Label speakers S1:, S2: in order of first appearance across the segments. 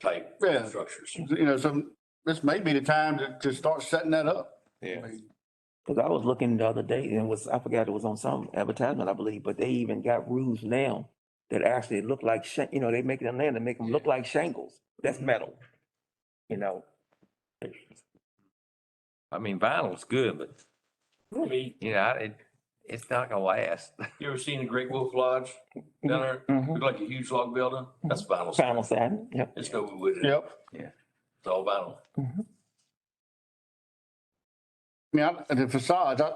S1: type
S2: Yeah.
S1: structures.
S2: you know, some, this may be the time to, to start setting that up.
S3: Yeah.
S4: Cause I was looking the other day and was, I forgot it was on some advertisement, I believe, but they even got roofs now that actually look like, shan- you know, they make them land and make them look like shingles. That's metal. You know,
S3: I mean, vinyl's good, but
S1: I mean,
S3: you know, I- it, it's not gonna last.
S1: you ever seen the Great Wolf Lodge down there?
S4: mhm,
S1: Look like a huge log building. That's vinyl.
S4: vinyl siding, yep.
S1: It's no wood. in it.
S2: Yep.
S1: It's all vinyl.
S2: I mean, I- the facades, I,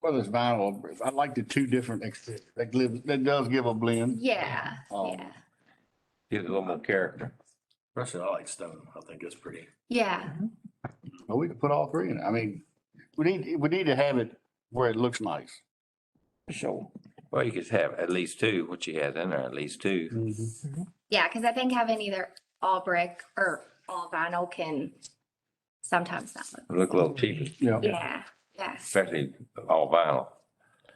S2: whether it's vinyl, or brick, I like the two different exteriors. That gives, that does give a blend.
S5: Yeah,
S2: Um,
S5: yeah,
S3: Get a little more character.
S1: Personally, I like stone. I think it's pretty.
S5: yeah.
S2: But we could put all three in. it. I mean, we need, we need to have it where it looks nice.
S4: For sure.
S3: Well, you could have at least two, what you had in there, at least two.
S5: Yeah, because I think having either all brick or all vinyl can sometimes not look.
S3: Look a little cheaper,
S2: Yeah.
S5: Yeah, yeah.
S3: especially all vinyl.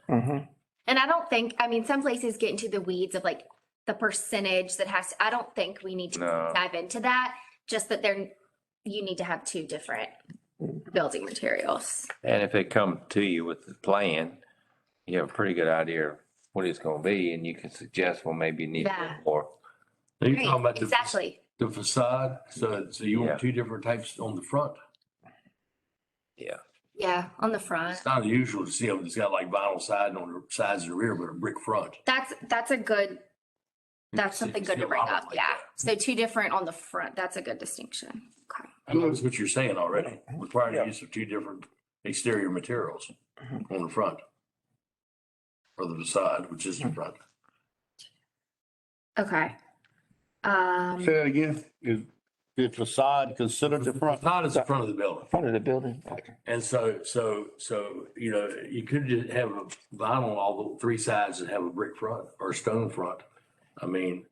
S4: Mhm.
S5: And I don't think, I mean, some places get into the weeds of like the percentage that has, I don't think we need to
S3: No.
S5: dive into that. Just that there, you need to have two different building materials.
S3: And if they come to you with the plan, you have a pretty good idea of what it's gonna be and you can suggest, well, maybe you need a little
S5: Yeah.
S3: more.
S1: You're
S5: Right,
S1: talking about the fac-
S5: Exactly.
S1: the facade. So, so you
S3: Yeah.
S1: want two different types on the front.
S5: Yeah, on the front.
S1: It's not unusual to see them. It's got like vinyl siding on the sides and the rear, but a brick front.
S5: That's, that's a good, that's
S1: see-
S5: something
S1: you
S5: good
S1: see
S5: to
S1: a
S5: bring
S1: lot of
S5: up.
S1: like
S5: Yeah.
S1: that.
S5: So two different on the front. That's a good distinction. Okay.
S1: I notice what you're saying already, requiring
S4: Yeah.
S1: the use of two different exterior materials on the front. Or the facade, which is the front.
S5: Okay. Um,
S2: Say that again. Is the facade considered the front?
S1: Facade is the front of the building.
S4: Front of the building.
S1: And so, so, so, you know, you could just have a vinyl on all the three sides and have a brick front or a stone front. I mean,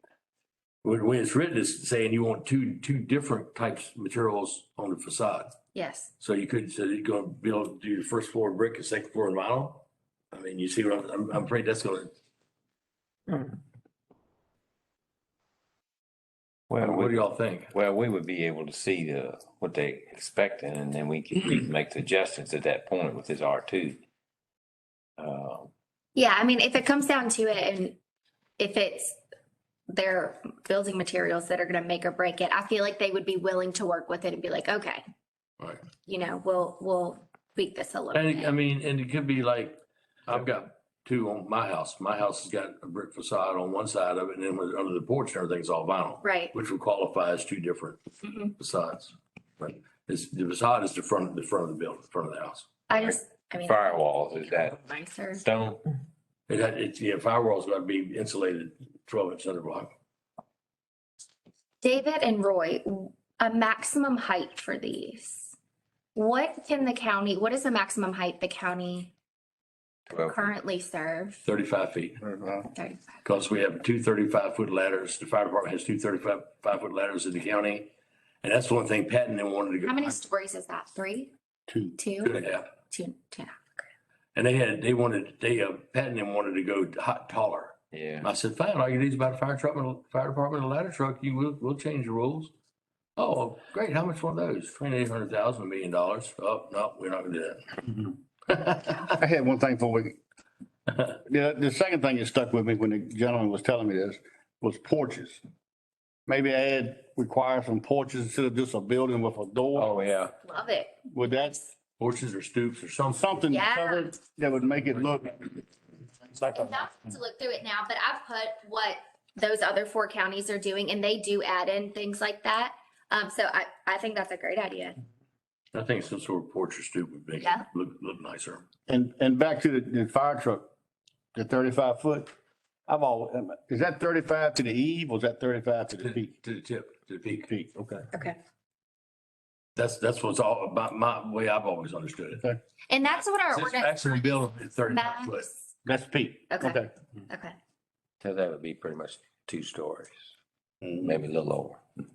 S1: when, when it's written, it's saying you want two, two different types of materials on the facade.
S5: yes.
S1: So you could, so you're gonna build, do your first floor brick and second floor vinyl? I mean, you see what I'm, I'm, I'm afraid that's gonna,
S4: Mhm.
S3: Well,
S1: what do
S3: we,
S1: y'all think?
S3: well, we would be able to see the, what they expecting and then we could we can make the adjustments at that point with this R two. Uh,
S5: Yeah, I mean, if it comes down to it and if it's their building materials that are gonna make or break it, I feel like they would be willing to work with it and be like, okay,
S1: Right.
S5: you know, we'll, we'll tweak this a little
S1: And um, I
S5: bit.
S1: mean, and it could be like, I've got two on my house. My house has got a brick facade on one side of it and then with, under the porch and everything's all vinyl,
S5: Right.
S1: which would qualify as two different
S5: Mhm.
S1: facades. But it's, the facade is the front, the front of the building, front of the house.
S5: I just, I mean.
S3: firewalls, is that
S5: Nicer.
S3: stone?
S1: It had, it's, yeah, firewall's gotta be insulated twelve inch underblock.
S5: David and Roy, a maximum height for these. What can the county, what is the maximum height the county
S3: Twelve.
S5: currently serve?
S1: thirty-five feet.
S5: Sorry.
S1: Because we have two 35-foot ladders. The fire department has two 35 five-foot ladders in the county. And that's one thing Patton then wanted to go.
S5: How many stories is that? Three,
S2: Two.
S1: Two
S5: two,
S1: and a half.
S5: two, two?
S1: And they had, they wanted, they, uh, Patton then wanted to go hot taller.
S3: Yeah.
S1: I said, fine, all you need is about a fire truck, and a fire department, and a ladder truck, you will, we'll change the rules. Oh, great, how much one of those? Twenty-eight hundred thousand million dollars? Oh, no, we're not gonna do that.
S2: I had one thing before we. The, the second thing that stuck with me when the gentleman was telling me this was porches. Maybe add, require some porches instead of just a building with a door.
S3: Oh, yeah.
S5: Love it.
S2: Would that,
S1: Porches or stoops or something.
S2: something
S5: Yeah.
S2: covered that would make it look
S4: Oh,
S2: like
S5: I'm
S2: a,
S5: not to look through it now, but I've put what those other four counties are doing and they do add in things like that. Um, so I, I think that's a great idea.
S1: I think some sort of porch or stoop would make it
S5: Yeah.
S1: look, look nicer.
S2: and, and back to the, the fire truck, the thirty-five foot. I've all, is that thirty-five to the eve or is that thirty-five to the peak?
S1: To the tip, to the peak.
S2: Peak, okay.
S5: Okay.
S1: That's, that's what's all about, my way I've always understood it.
S5: And that's what our
S1: Since
S5: ordinance.
S1: maximum build is thirty-five foot.
S5: Max-
S2: That's peak.
S5: Okay. Okay.
S3: So that would be pretty much two stories, maybe a little over.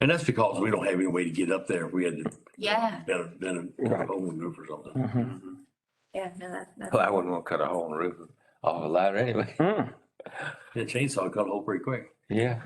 S1: And that's because we don't have any way to get up there if we had to.
S5: Yeah.
S1: Been, a- been a
S4: Right.
S1: home roof or something.
S4: Mhm.
S1: Mm-hmm.
S5: Yeah, no, that, that's.
S3: Well, I wouldn't want to cut a hole in the roof off a ladder anyway.
S4: Mm.
S1: And a chainsaw cut a hole pretty quick.
S3: Yeah.